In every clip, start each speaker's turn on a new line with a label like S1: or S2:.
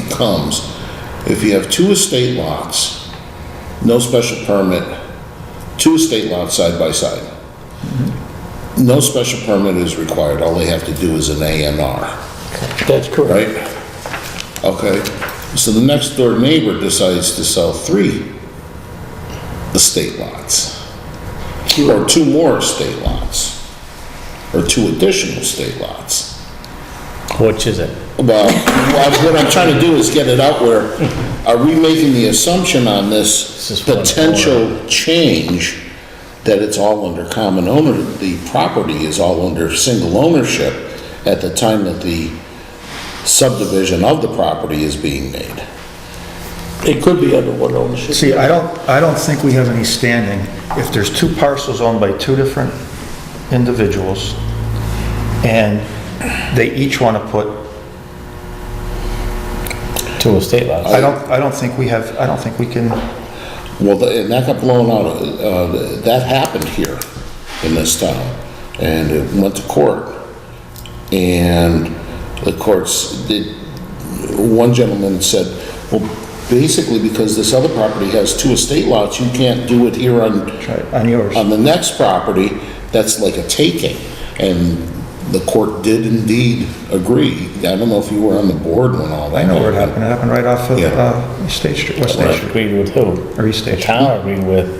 S1: becomes, if you have two estate lots, no special permit, two estate lots side by side, no special permit is required, all they have to do is an A and R
S2: That's correct.
S1: right? Okay, so the next door neighbor decides to sell three estate lots. Or two more estate lots. Or two additional estate lots.
S3: Which is it?
S1: Well, what- what I'm trying to do is get it out where, are we making the assumption on this
S3: This is one
S1: potential change that it's all under common owner, the property is all under single ownership at the time that the subdivision of the property is being made?
S2: It could be under one ownership.
S4: See, I don't, I don't think we have any standing. If there's two parcels owned by two different individuals, and they each want to put,
S3: Two estate lots.
S4: I don't, I don't think we have, I don't think we can,
S1: Well, th- and that got blown out, uh, that happened here in this town, and it went to court. And the courts did, one gentleman said, well, basically because this other property has two estate lots, you can't do it here on,
S4: on yours.
S1: on the next property, that's like a taking. And the court did indeed agree. I don't know if you were on the board when all that
S4: I know where it happened. It happened right off of
S1: Yeah.
S4: uh, State Street, West State
S3: Which
S4: Street,
S3: agreed with who?
S4: or East
S3: The
S4: State Street.
S3: town agreed with,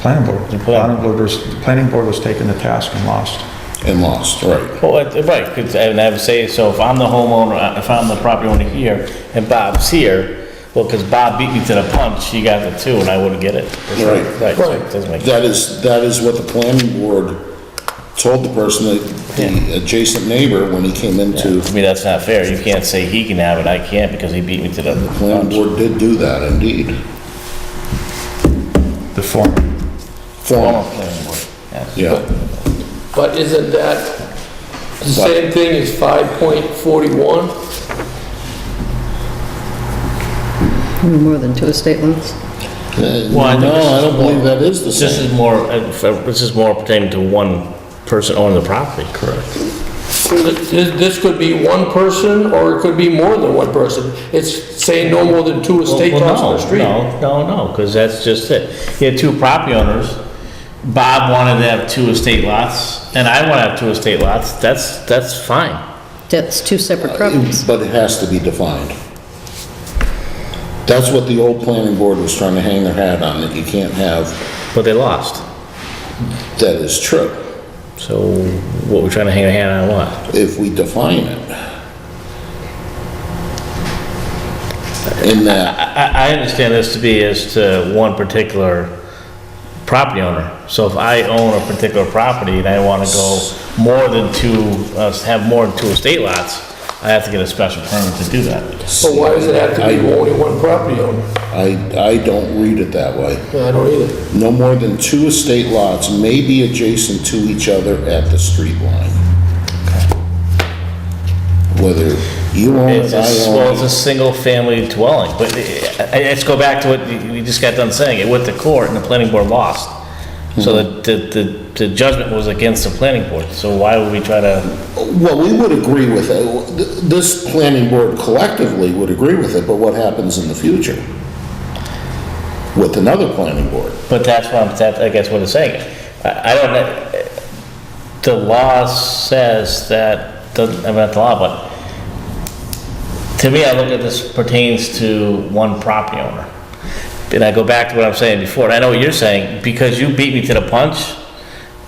S4: Planning board. The
S3: plan-
S4: planning board was, the planning board was taking the task and lost.
S1: And lost, right.
S3: well, it- right, 'cause- and I would say, so if I'm the homeowner, uh, if I'm the property owner here, and Bob's here, well, because Bob beat me to the punch, he got the two, and I wouldn't get it.
S1: Right.
S3: Right, so it doesn't make
S1: That is, that is what the planning board told the person, that the adjacent neighbor, when he came into,
S3: To me, that's not fair. You can't say he can have it, I can't, because he beat me to the
S1: planning
S3: punch.
S1: board did do that indeed.
S4: The form.
S3: Former
S1: Form,
S3: planning board, yes.
S1: yeah,
S2: But isn't that the same thing as 5.41?
S5: More than two estate lots?
S1: Uh, no,
S3: Well, I think this
S1: I
S3: is
S1: don't believe
S3: more-
S1: that is the
S3: This
S1: same.
S3: is more, uh, for- this is more pertaining to one person owning the property. Correct.
S2: This this could be one person, or it could be more than one person. It's saying no more than two
S3: Well,
S2: estate lots
S3: well,
S2: per street.
S3: No, no, no, because that's just it. You had two property owners. Bob wanted to have two estate lots, and I want to have two estate lots. That's, that's fine.
S5: That's two separate properties.
S1: But it has to be defined. That's what the old planning board was trying to hang their hat on, that you can't have,
S3: But they lost.
S1: that is true,
S3: So what, we're trying to hang a hand on what?
S1: if we define it. In that,
S3: I, I understand this to be as to one particular property owner. So if I own a particular property and I want to go more than two, uh, have more than two estate lots, I have to get a special permit to do that.
S2: So why does it have to be only one property owner?
S1: I, I don't read it that way.
S2: I don't either.
S1: No more than two estate lots may be adjacent to each other at the street line. Whether you own
S3: It's
S1: it,
S3: a,
S1: I
S3: well, it's
S1: own
S3: a
S1: it.
S3: single-family dwelling, but I- I- let's go back to what you you just got done saying. It went to court and the planning board lost. So the, the, the judgment was against the planning board, so why would we try to?
S1: Well, we would agree with it. This planning board collectively would agree with it, but what happens in the future? With another planning board?
S3: But that's what I'm, that, I guess what it's saying. I, I don't, know. the law says that, doesn't, I mean, not the law, but to me, I look at this pertains to one property owner. And I go back to what I'm saying before, and I know what you're saying, because you beat me to the punch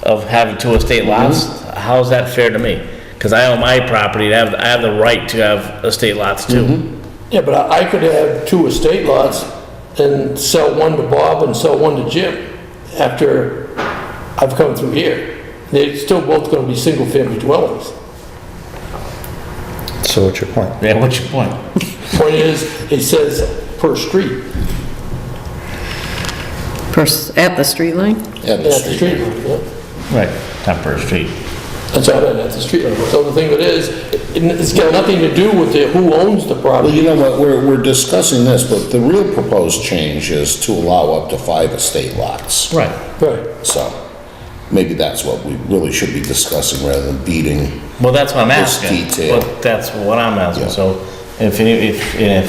S3: of having two estate lots, how's that fair to me? Because I own my property, and I have, I have the right to have estate lots too.
S2: Yeah, but I I could have two estate lots and sell one to Bob and sell one to Jim after I've come through here. They're still both gonna be single-family dwellings.
S4: So what's your point?
S3: Yeah, what's your point?
S2: Point is, it says per street,
S5: Pers- At the street line?
S1: At the
S2: at the
S1: street.
S2: street, yeah.
S3: Right. Not per street.
S2: That's all right, at the street level. So the thing of it is, it- it's got nothing to do with the- who owns the
S1: Well,
S2: property.
S1: you know what, we're, we're discussing this, but the real proposed change is to allow up to five estate lots.
S3: Right.
S2: Right.
S1: So maybe that's what we really should be discussing rather than beating.
S3: Well, that's what I'm
S1: It's
S3: asking.
S1: detailed.
S3: But that's what I'm asking, so If, any- if, and if